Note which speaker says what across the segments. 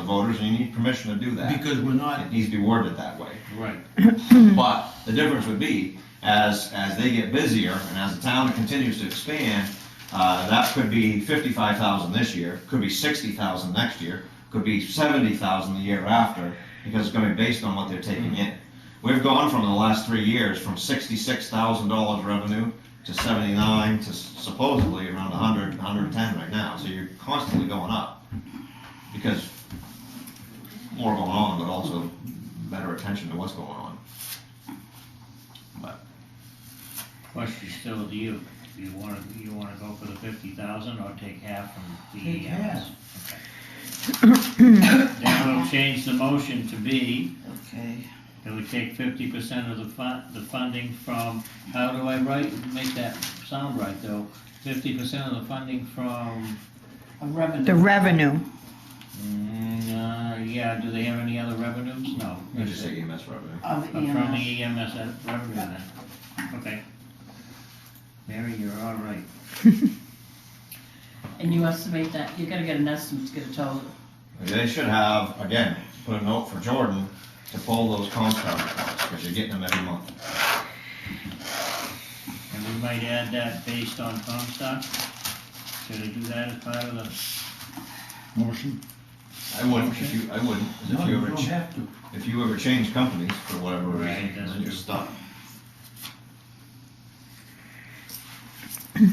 Speaker 1: subdivision, you need permission to do that.
Speaker 2: Because we're not,
Speaker 1: It needs to be worded that way.
Speaker 2: right,
Speaker 1: But the difference would be, as, as they get busier and as the town continues to expand, uh, that could be fifty-five thousand this year, could be sixty thousand next year, could be seventy thousand the year after, because it's gonna be based on what they're taking in. We've gone from the last three years, from sixty-six thousand dollars revenue to seventy-nine to supposedly around a hundred, hundred and ten right now, so you're constantly going up. Because more going on, but also better attention to what's going on.
Speaker 3: Question still to you, do you wanna, you wanna go for the fifty thousand or take half from
Speaker 2: Take
Speaker 3: the
Speaker 2: half.
Speaker 3: EMS? Okay. Then we'll change the motion to be
Speaker 2: okay.
Speaker 3: that we take fifty percent of the fun, the funding from, how do I write, make that sound right though? Fifty percent of the funding from,
Speaker 2: A revenue.
Speaker 4: The revenue,
Speaker 3: mm, uh, yeah, do they have any other revenues? No.
Speaker 1: You just E say EMS revenue.
Speaker 2: Of
Speaker 5: E
Speaker 3: Uh, From
Speaker 2: EMS.
Speaker 3: the EMS uh, revenue then, okay. Mary, you're all right.
Speaker 5: And you estimate that, you gotta get an estimate to get a total.
Speaker 1: They should have, again, put a note for Jordan to pull those compound reports, because you're getting them every month.
Speaker 3: And we might add that based on Comstock? Should I do that as part of the,
Speaker 6: Motion?
Speaker 1: I wouldn't, if you, I wouldn't, 'cause
Speaker 2: No,
Speaker 1: if
Speaker 2: you
Speaker 1: you ever,
Speaker 2: don't
Speaker 1: ch-
Speaker 2: have to.
Speaker 1: if you ever change companies for whatever
Speaker 3: Right,
Speaker 1: reason,
Speaker 3: that's
Speaker 1: then you're
Speaker 3: true.
Speaker 1: stuck.
Speaker 3: I'm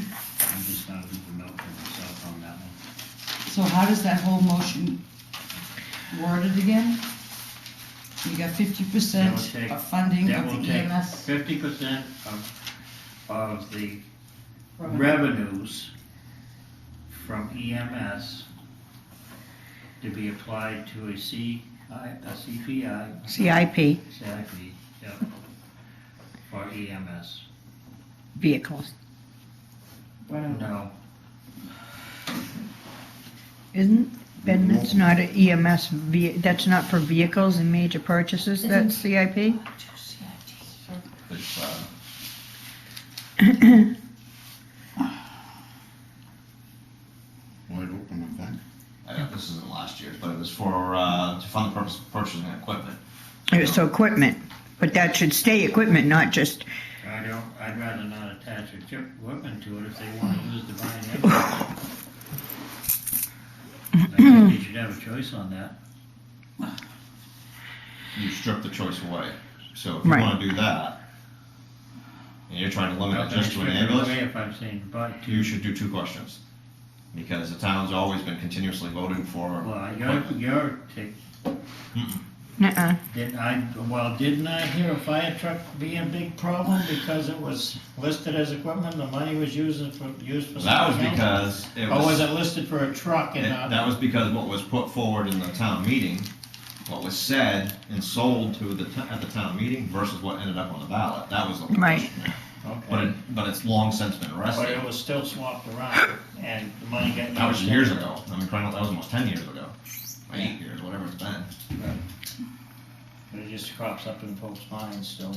Speaker 3: just gonna leave a note for myself on that one.
Speaker 7: So how does that whole motion worded again? You got fifty percent
Speaker 3: That will take-
Speaker 7: of funding
Speaker 3: that
Speaker 7: of
Speaker 3: will
Speaker 7: the E
Speaker 3: take-
Speaker 7: EMS.
Speaker 3: Fifty percent of, of the revenues from EMS to be applied to a C, I, a CPI,
Speaker 4: CIP,
Speaker 3: CIP, yeah, for E EMS.
Speaker 4: vehicles.
Speaker 7: Whatever.
Speaker 3: No,
Speaker 4: Isn't, Ben, that's not an EMS, ve- that's not for vehicles and major purchases, that's CIP?
Speaker 1: It's, uh,
Speaker 6: Wide open, I think.
Speaker 1: I don't, this isn't last year's, but it was for, uh, to fund the purpose of purchasing equipment.
Speaker 4: So equipment, but that should stay equipment, not just,
Speaker 3: I don't, I'd rather not attach a chip weapon to it if they wanna use the buying engine. I think they should have a choice on that.
Speaker 1: You strip the choice away, so if you
Speaker 4: Right.
Speaker 1: wanna do that, and you're trying to limit it just to an ambulance,
Speaker 3: If I'm saying, but,
Speaker 1: you should do two questions. Because the town's always been continuously voting for.
Speaker 3: well, you're, you're, tick-
Speaker 4: uh-uh,
Speaker 3: did I, well, didn't I hear a fire truck be a big problem because it was listed as equipment, the money was used for, used for
Speaker 1: That was
Speaker 3: something else?
Speaker 1: because it
Speaker 3: Or
Speaker 1: was,
Speaker 3: was it listed for a truck and
Speaker 1: it-
Speaker 3: not,
Speaker 1: that was because what was put forward in the town meeting, what was said and sold to the, t- at the town meeting versus what ended up on the ballot, that was the
Speaker 4: Right.
Speaker 1: question. But
Speaker 3: okay,
Speaker 1: it, but it's long since been
Speaker 3: but
Speaker 1: arrested.
Speaker 3: it was still swapped around, and the money got.
Speaker 1: That was
Speaker 3: used
Speaker 1: years ago, I mean, probably, that was almost ten years ago, or eight years, whatever it's been.
Speaker 3: But it just crops up in folks' minds still,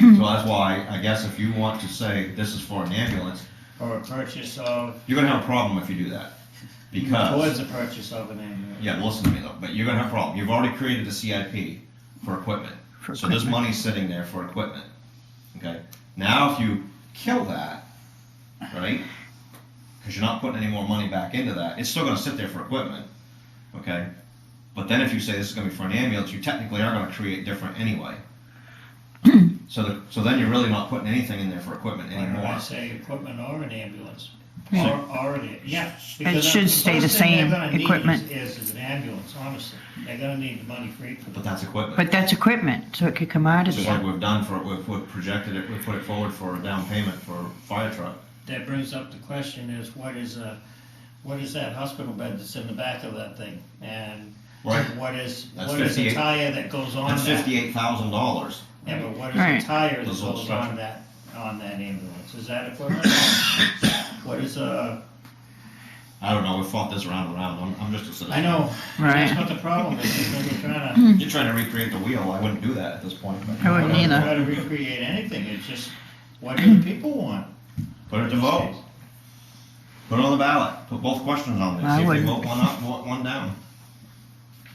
Speaker 1: So that's why, I guess if you want to say this is for an ambulance,
Speaker 3: or a purchase of,
Speaker 1: you're gonna have a problem if you do that. Because
Speaker 3: towards the purchase of an ambulance.
Speaker 1: Yeah, listen to me though, but you're gonna have a problem. You've already created a CIP for equipment.
Speaker 4: For
Speaker 1: So this
Speaker 4: equipment.
Speaker 1: money's sitting there for equipment, okay? Now, if you kill that, right? Cause you're not putting any more money back into that, it's still gonna sit there for equipment, okay? But then if you say this is gonna be for an ambulance, you technically are gonna create different anyway. So the, so then you're really not putting anything in there for equipment
Speaker 3: Why don't I
Speaker 1: anymore.
Speaker 3: say equipment or an ambulance? Or,
Speaker 4: Yeah.
Speaker 3: or an, yeah.
Speaker 4: It
Speaker 3: because
Speaker 4: should
Speaker 3: the
Speaker 4: stay the
Speaker 3: first thing they're
Speaker 4: same
Speaker 3: gonna need
Speaker 4: equipment.
Speaker 3: Is, is an ambulance, honestly. They're gonna need the money for it.
Speaker 1: But that's equipment.
Speaker 4: but that's equipment, so it could come out of
Speaker 1: Just like
Speaker 4: there.
Speaker 1: we've done for, we've, we've projected it, we put it forward for a down payment for a fire truck.
Speaker 3: That brings up the question is, what is a, what is that hospital bed that's in the back of that thing? And
Speaker 1: Right.
Speaker 3: what is,
Speaker 1: That's
Speaker 3: what is a
Speaker 1: 58
Speaker 3: tire that goes on
Speaker 1: That's
Speaker 3: that?
Speaker 1: Oh, fifty-eight thousand dollars.
Speaker 3: Yeah, but what
Speaker 4: Right.
Speaker 3: is a tire that
Speaker 1: Those old
Speaker 3: goes on
Speaker 1: structures.
Speaker 3: that, on that ambulance? Is that equipment? What is a,
Speaker 1: I don't know, we fought this round and round, I'm, I'm just a citizen.
Speaker 3: I know, that's
Speaker 4: Right,
Speaker 3: what the problem is, is when you're trying to
Speaker 1: You're trying to recreate the wheel, I wouldn't do that at this point, but
Speaker 4: I wouldn't
Speaker 3: I don't
Speaker 4: either.
Speaker 3: try to recreate anything, it's just, what do the people want?
Speaker 1: put it to vote. Put it on the ballot, put both questions on there,
Speaker 4: I
Speaker 1: see if they
Speaker 4: wouldn't.
Speaker 1: vote one up, vote one down.